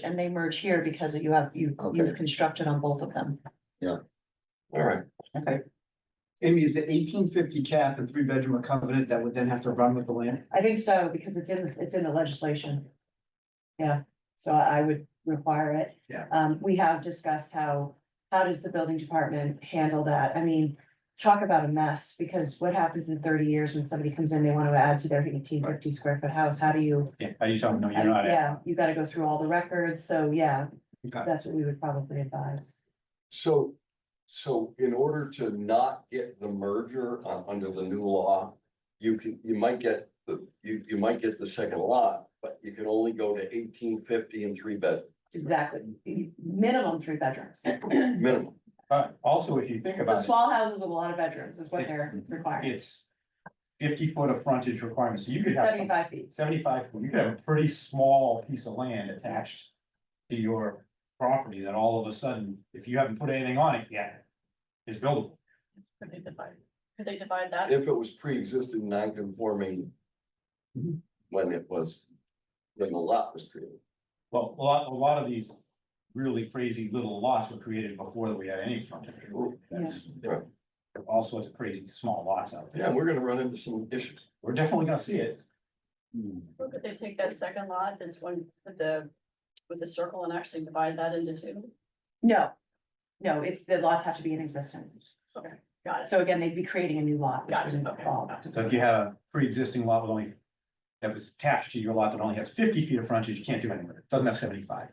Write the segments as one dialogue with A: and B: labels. A: and they merge here because you have, you,
B: Okay.
A: you've constructed on both of them.
B: All right,
A: Okay.
C: Amy, is the eighteen fifty cap and three bedroom a covenant that would then have to run with the land?
A: I think so, because it's in, it's in the legislation. Yeah, so I would require it.
C: Yeah.
A: Um, we have discussed how, how does the building department handle that? I mean, talk about a mess, because what happens in thirty years when somebody comes in, they want to add to their eighteen fifty square foot house, how do you?
D: Yeah, are you talking, no, you're not, at-
A: Yeah, you gotta go through all the records, so yeah,
C: Okay.
A: that's what we would probably advise.
B: so, so in order to not get the merger uh, under the new law. You can, you might get the, you, you might get the second lot, but you can only go to eighteen fifty and three bed
A: Exactly, minimum three bedrooms.
B: minimum.
D: but also if you think
A: So
D: about it,
A: small houses with a lot of bedrooms is what they're requiring,
D: it's fifty foot of frontage requirement, so you could have some-
A: seventy-five feet.
D: seventy-five, foot. you could have a pretty small piece of land attached to your property that all of a sudden, if you haven't put anything on it yet, is buildable.
E: Could they divide, could they divide that?
B: If it was pre-existing non-conforming. When it was, when the lot was created.
D: Well, a lot, a lot of these really crazy little lots were created before we had any frontage. That's-
B: Yeah.
D: there are All sorts of crazy small lots out
B: Yeah,
D: there.
B: we're gonna run into some issues.
D: We're definitely gonna see it.
E: Or Could they take that second lot that's one with the, with the circle and actually divide that into two?
A: No, no, it's, the lots have to be in existence.
E: Got it,
A: So again, they'd be creating a new lot. which
E: Gotcha,
A: wouldn't
E: okay.
A: fall.
D: So if you had a pre-existing lot with only. That was attached to your lot that only has fifty feet of frontage, you can't do anything with it, doesn't have seventy-five.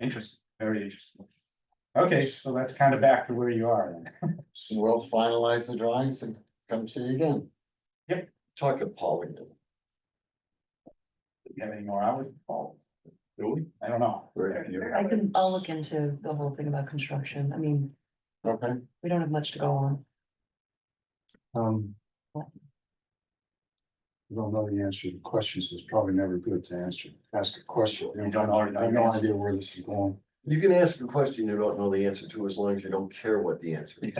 D: Interesting, very interesting. Okay, so that's kind of back to where you are then.
F: So we'll finalize the drawings and come see you again.
B: Talk to Paul again,
D: Do you have any more hours? Oh,
B: do we?
D: I don't know.
A: I can, I'll look into the whole thing about construction. I mean,
F: Okay,
A: we don't have much to go on.
F: um. I Don't know the answer to questions. It's probably never good to answer, ask a question.
D: You don't already know
F: I have no
D: the answer.
F: idea where this is going.
B: You can ask a question you don't know the answer to as long as you don't care what the answer is.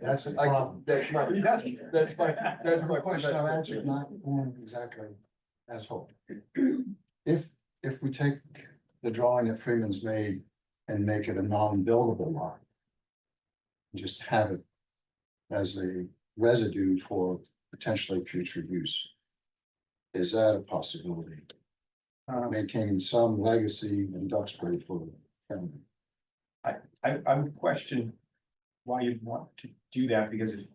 F: That's the
B: I,
F: problem.
B: that's my,
D: He doesn't.
B: that's my, that's my
F: Question I've answered,
B: question.
F: not going exactly as hoped. If, if we take the drawing that Freeman's made and make it a non-buildable lot. Just have it as a residue for potentially future use. Is that a possibility?
D: Um,
F: Maintaining some legacy in Duxbury for the family.
D: I, I would question why you'd want to do that, because if.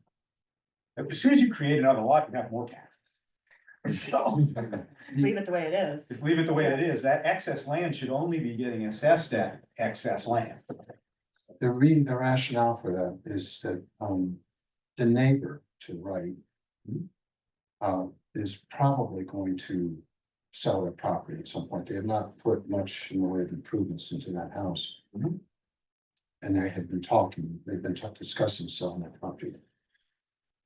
D: As soon as you create another lot, you have more taxes. So.
A: Leave it the way it is.
D: Just leave it the way it is. That excess land should only be getting assessed at excess land.
F: The reason, the rationale for that is that, um, the neighbor to the right. Uh, is probably going to sell their property at some point. They have not put much in the way of improvements into that house.
D: Mhm.
F: And they have been talking, they've been talk- discussing selling that property.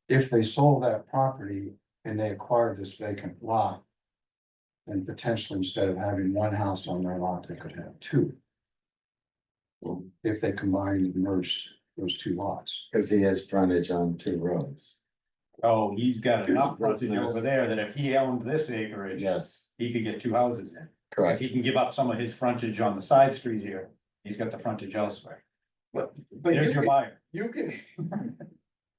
F: If they sold that property and they acquired this vacant lot. then potentially instead of having one house on their lot, they could have two if they combined and merged those two lots.
G: Cause he has frontage on two roads.
D: Oh, he's got enough frontage over there that if he owned this acreage,
G: Yes,
D: he could get two houses in. Cause
G: correct.
D: he can give up some of his frontage on the side street here. He's got the frontage elsewhere.
B: But, but you
D: There's your
B: can,
D: buyer.
B: you can,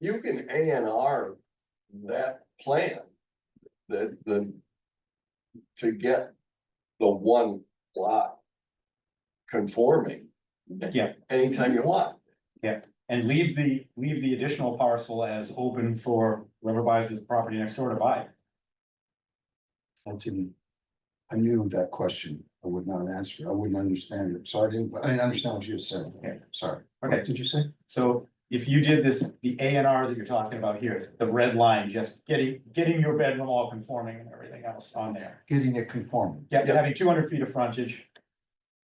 B: you can A and R that plan. The, the, to get the one lot conforming
D: Yeah,
B: anytime you want.
D: and leave the, leave the additional parcel as open for whoever buys his property next door to buy. it.
F: I didn't. I knew that question. I would not answer. I wouldn't understand it. So I didn't, I didn't understand what you just said.
D: Okay.
F: Sorry.
D: Okay.
F: What did you say?
D: So if you did this, the A and R that you're talking about here, the red line, just getting, getting your bedroom all conforming and everything else on there.
F: Getting it conforming.
D: Yeah,
B: Yeah.
D: having two hundred feet of frontage.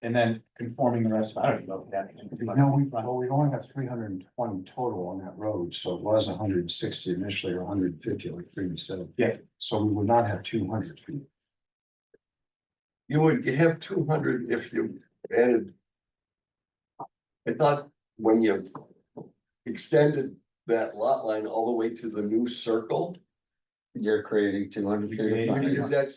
D: And then conforming the rest of, I don't even know if that. means 200
F: No, we,
D: feet front.
F: well, we only have three hundred and twenty total on that road, so it was hundred and sixty initially or hundred and fifty, like Freeman said.
D: Yeah.
F: So we would not have two hundred feet.
B: You would have two hundred if you added. I thought when you extended that lot line all the way to the new circle,
G: You're creating two hundred feet of
D: Yeah,
G: frontage.
B: that's